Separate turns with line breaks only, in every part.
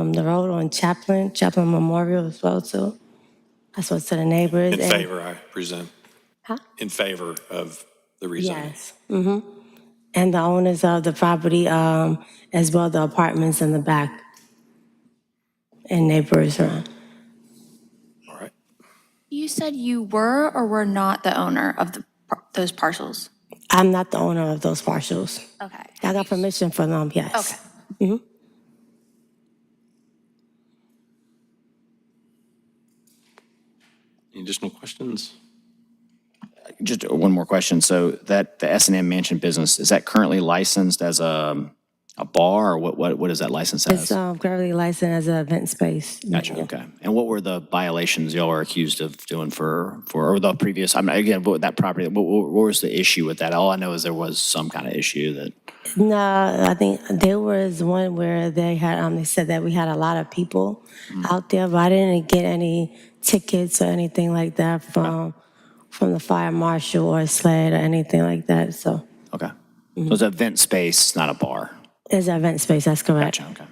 um, the road on Chaplin, Chaplin Memorial as well too. I spoke to the neighbors.
In
and-
favor, I presume.
Huh?
In favor of the rezoning.
Yes. hmm And the owners of the property, um, as well the apartments in the back and neighbors around.
All right.
You said you were or were not the owner of the, par- those parcels?
I'm not the owner of those parcels.
Okay.
I got permission from them, yes.
Okay.
Any additional questions?
Just one more question. So that, the S and M Mansion business, is that currently licensed as a, a bar or what, what, what is that licensed
It's
as?
um, currently licensed as an event space.
Gotcha, okay. And what were the violations y'all were accused of doing for, for, or the previous, I'm, again, what, that property, what, what what was the issue with that? All I know is there was some kind of issue that,
No, I think there was one where they had, um, they said that we had a lot of people out there, but I didn't get any tickets or anything like that from, from the fire marshal or sled or anything like that, so.
okay. So it's an event space, not a bar.
It's an event space, that's correct.
Gotcha, okay.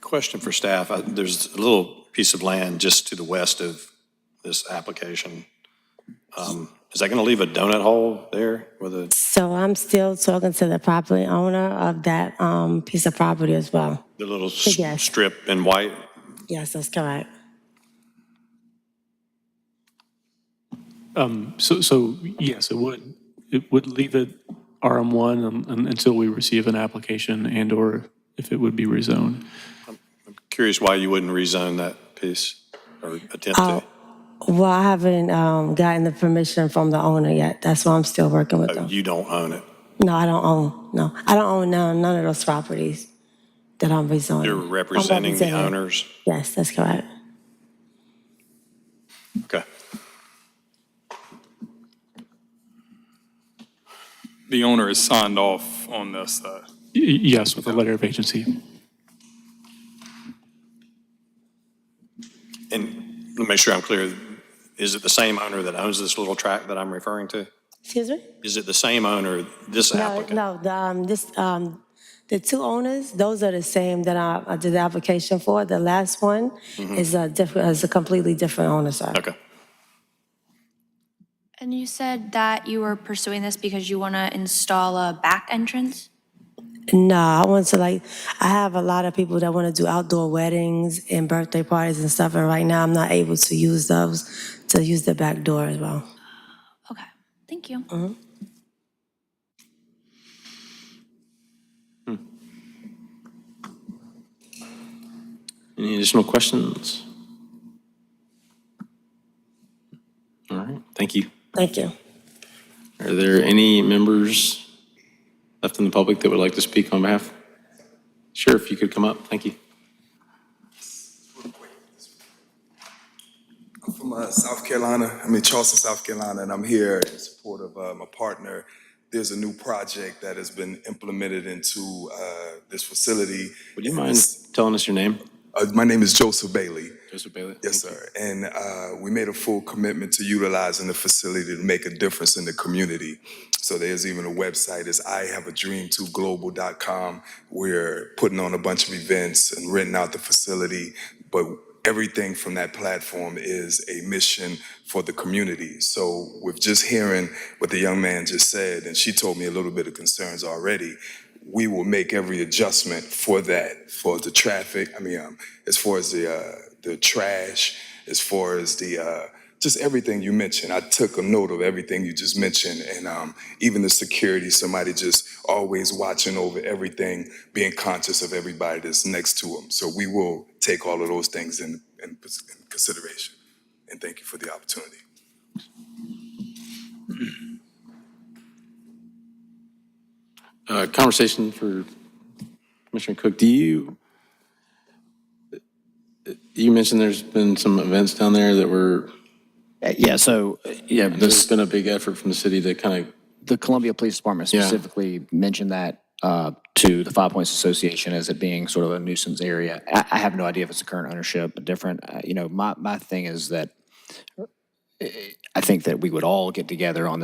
Question for staff. I- There's a little piece of land just to the west of this application. Um, Is that going to leave a donut hole there with a,
So I'm still talking to the property owner of that, um, piece of property as well.
the little s-
Yes.
strip in white?
Yes, that's correct.
So, so yes, it would. It would leave it RM1 un- un- until we receive an application and/or if it would be rezoned.
Curious why you wouldn't rezone that piece or attempt to?
Well, I haven't, um, gotten the permission from the owner yet, that's why I'm still working with them.
You don't own it.
No, I don't own, no, I don't own none, none of those properties that I'm rezoning.
You're
I'm
representing the
representing.
owners?
Yes, that's correct.
Okay.
The owner has signed off on this, though.
Y- y- Yes, with a letter of agency.
And let me make sure I'm clear. Is it the same owner that owns this little tract that I'm referring to?
Excuse me?
Is it the same owner, this
No,
applicant?
no, the, um, this, um, the two owners, those are the same that I, I did the application for. The last one is a different, is a completely different owner, sir.
Mm-hmm. Okay.
And you said that you were pursuing this because you want to install a back entrance?
No, I want to like, I have a lot of people that want to do outdoor weddings and birthday parties and stuff, and right now I'm not able to use those, to use the back door as well.
Okay, thank you.
Any additional questions? All right, thank you.
Thank you.
Are there any members left in the public that would like to speak on behalf? Sheriff, you could come up. Thank you.
I'm from uh, South Carolina. I'm in Charleston, South Carolina, and I'm here in support of uh, my partner. There's a new project that has been implemented into uh, this facility.
Would you mind telling us your name?
Uh, my name is Joseph Bailey.
Joseph Bailey?
Yes, sir. And uh, we made a full commitment to utilizing the facility to make a difference in the community. So there's even a website, it's ihaveadream2global.com. We're putting on a bunch of events and renting out the facility, but everything from that platform is a mission for the community. So with just hearing what the young man just said, and she told me a little bit of concerns already, we will make every adjustment for that, for the traffic. I mean, um, as far as the uh, the trash, as far as the uh, just everything you mentioned. I took a note of everything you just mentioned, and um, even the security. Somebody just always watching over everything, being conscious of everybody that's next to them. So we will take all of those things in, in, in consideration. And thank you for the opportunity.
Uh, Conversation for Commissioner Cook, do you, you mentioned there's been some events down there that were,
Uh, Yeah, so, uh, yeah,
there's
this,
been a big effort from the city to kind of
the Columbia Police Department specifically mentioned that uh, to the Five Points Association as it being sort of a nuisance area. I, I have no idea if it's the current ownership, but different. Uh, you know, my, my thing is that uh, I think that we would all get together on